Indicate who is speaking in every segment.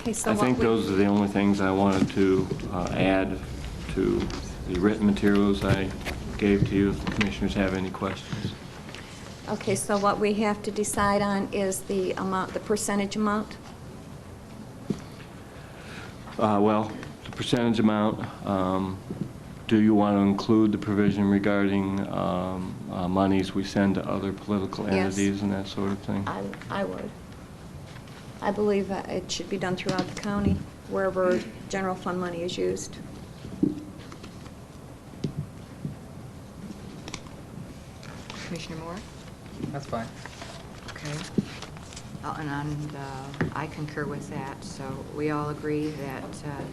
Speaker 1: Okay, so
Speaker 2: I
Speaker 1: what
Speaker 2: think
Speaker 1: we-
Speaker 2: those are the only things I wanted to uh, add to the written materials I gave to you. If the Commissioners have any questions?
Speaker 1: Okay, so what we have to decide on is the amount, the percentage amount?
Speaker 2: Uh, Well, the percentage amount, um, do you want to include the provision regarding um, uh, monies we send to other political
Speaker 1: Yes.
Speaker 2: entities and that sort of thing?
Speaker 1: I, I would. I believe that it should be done throughout the county, wherever general fund money is used.
Speaker 3: Commissioner Moore?
Speaker 4: That's fine.
Speaker 3: Okay. Uh, And I'm, uh, I concur with that, so we all agree that uh,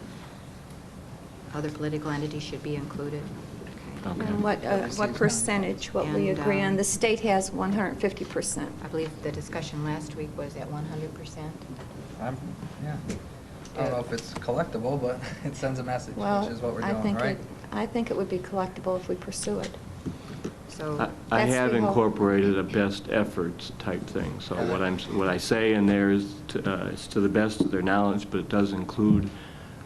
Speaker 3: other political entities should be included. Okay.
Speaker 2: Okay.
Speaker 1: And what, uh, what percentage, what we
Speaker 3: And,
Speaker 1: agree on,
Speaker 3: um,
Speaker 1: the state has 150%.
Speaker 3: I believe the discussion last week was at 100%.
Speaker 4: I'm, yeah. I don't know if it's collectible, but it sends a message,
Speaker 1: Well,
Speaker 4: which is what we're
Speaker 1: I
Speaker 4: doing,
Speaker 1: think
Speaker 4: right?
Speaker 1: it- I think it would be collectible if we pursue it.
Speaker 2: I-
Speaker 3: So,
Speaker 2: I
Speaker 1: That's
Speaker 2: have
Speaker 1: the whole-
Speaker 2: incorporated a best efforts type thing, so what I'm, what I say in there is, to- uh, is to the best of their knowledge, but it does include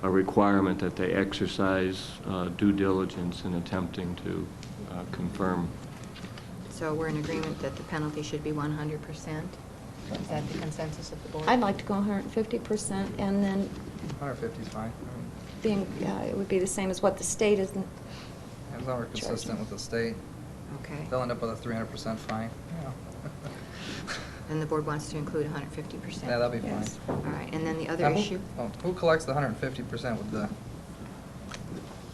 Speaker 2: a requirement that they exercise uh, due diligence in attempting to uh, confirm.
Speaker 3: so we're in agreement that the penalty should be 100%? Is that the consensus of the board?
Speaker 1: I'd like to go 150%, and then
Speaker 4: 150 is fine. I mean,
Speaker 1: being, uh, it would be the same as what the state is,
Speaker 4: As long as we're consistent with the state,
Speaker 3: Okay.
Speaker 4: they'll end up with a 300% fine. Yeah.
Speaker 3: And the board wants to include 150%?
Speaker 4: Yeah, that'll be fine.
Speaker 1: Yes.
Speaker 3: All right, and then the other
Speaker 4: Now, who-
Speaker 3: issue?
Speaker 4: oh, Who collects the 150% with the,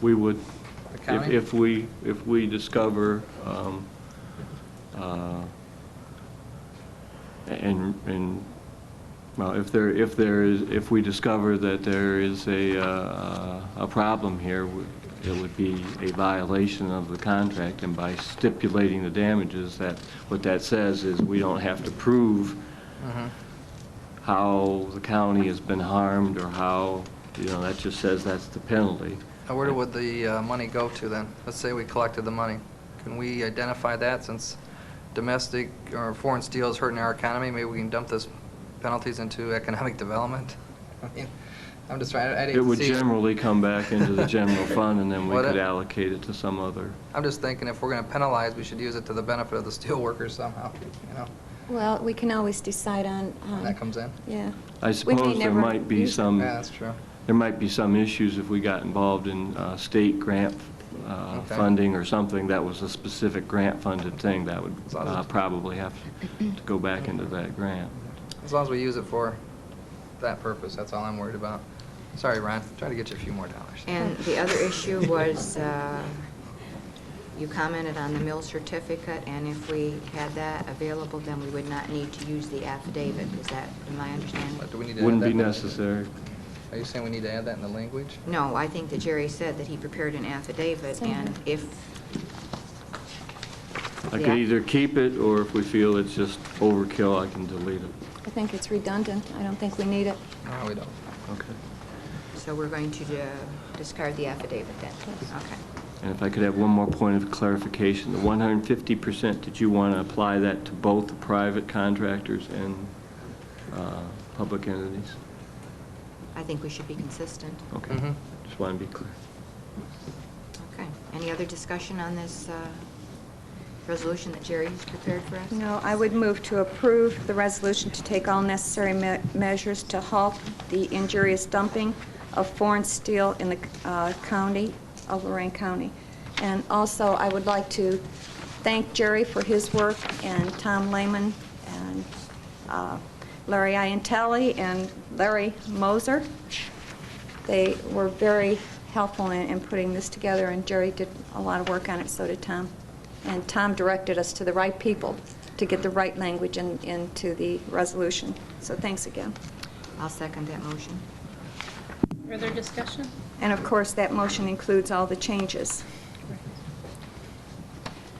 Speaker 2: We would,
Speaker 4: The
Speaker 2: if-
Speaker 4: county?
Speaker 2: if we, if we discover um, uh, and, and, well, if there, if there is, if we discover that there is a, uh, a problem here, we- it would be a violation of the contract, and by stipulating the damages, that, what that says is we don't have to prove
Speaker 4: Mhm.
Speaker 2: how the county has been harmed, or how, you know, that just says that's the penalty.
Speaker 4: Now, where would the uh, money go to then? Let's say we collected the money. Can we identify that since domestic or foreign steel is hurting our economy? Maybe we can dump those penalties into economic development? I mean, I'm just trying, I
Speaker 2: It
Speaker 4: didn't
Speaker 2: would
Speaker 4: see.
Speaker 2: generally come back into the general fund, and then we
Speaker 4: What
Speaker 2: could
Speaker 4: I-
Speaker 2: allocate it to some other.
Speaker 4: I'm just thinking if we're going to penalize, we should use it to the benefit of the steelworkers somehow, you know?
Speaker 1: well, we can always decide on.
Speaker 4: When
Speaker 1: on-
Speaker 4: that comes in.
Speaker 1: Yeah.
Speaker 2: I suppose there
Speaker 1: never
Speaker 2: might be
Speaker 1: use it.
Speaker 2: some,
Speaker 4: Yeah, that's true.
Speaker 2: there might be some issues if we got involved in uh, state grant uh,
Speaker 4: Okay.
Speaker 2: funding or something that was a specific grant-funded thing, that would
Speaker 4: As long as
Speaker 2: uh,
Speaker 4: it's-
Speaker 2: probably have to go back into that grant.
Speaker 4: As long as we use it for that purpose, that's all I'm worried about. Sorry, Ron, trying to get you a few more dollars.
Speaker 3: And the other issue was, uh, you commented on the mill certificate, and if we had that available, then we would not need to use the affidavit. Is that, am I
Speaker 4: But
Speaker 3: understanding?
Speaker 4: Do we need to add
Speaker 2: Wouldn't
Speaker 4: that
Speaker 2: be
Speaker 4: in the-
Speaker 2: necessary.
Speaker 4: Are you saying we need to add that in the language?
Speaker 3: No, I think that Jerry said that he prepared an affidavit, and if...
Speaker 2: I
Speaker 3: Yeah.
Speaker 2: could either keep it, or if we feel it's just overkill, I can delete it.
Speaker 1: I think it's redundant. I don't think we need it.
Speaker 4: No, we don't.
Speaker 2: Okay.
Speaker 3: So we're going to uh, discard the affidavit then? Okay.
Speaker 2: And if I could have one more point of clarification, the 150%, did you want to apply that to both the private contractors and uh, public entities?
Speaker 3: I think we should be consistent.
Speaker 2: Okay,
Speaker 4: Mhm.
Speaker 2: just want to be clear.
Speaker 3: Okay. Any other discussion on this uh, resolution that Jerry's prepared for us?
Speaker 1: No, I would move to approve the resolution to take all necessary me- measures to halt the injurious dumping of foreign steel in the uh, county, of Lorraine County. And also, I would like to thank Jerry for his work, and Tom Lehman, and uh, Larry Iantelli, and Larry Moser. They were very helpful in in putting this together, and Jerry did a lot of work on it, so did Tom. And Tom directed us to the right people to get the right language in- into the resolution. So thanks again.
Speaker 3: I'll second that motion.
Speaker 5: Further discussion?
Speaker 1: And of course, that motion includes all the changes.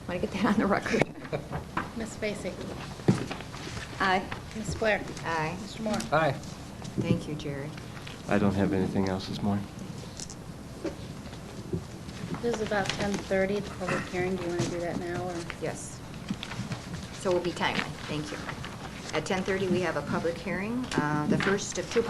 Speaker 1: Want to get that on the record?
Speaker 5: Ms. Vacy?
Speaker 1: Aye.
Speaker 5: Ms. Blair?
Speaker 3: Aye.
Speaker 5: Mr. Moore?
Speaker 4: Aye.
Speaker 3: Thank you, Jerry.
Speaker 2: I don't have anything else this morning.
Speaker 5: This is about 10:30, the public hearing. Do you want to do that now, or?
Speaker 3: Yes. So we'll be timely. Thank you. At 10:30, we have a public hearing, uh, the first of two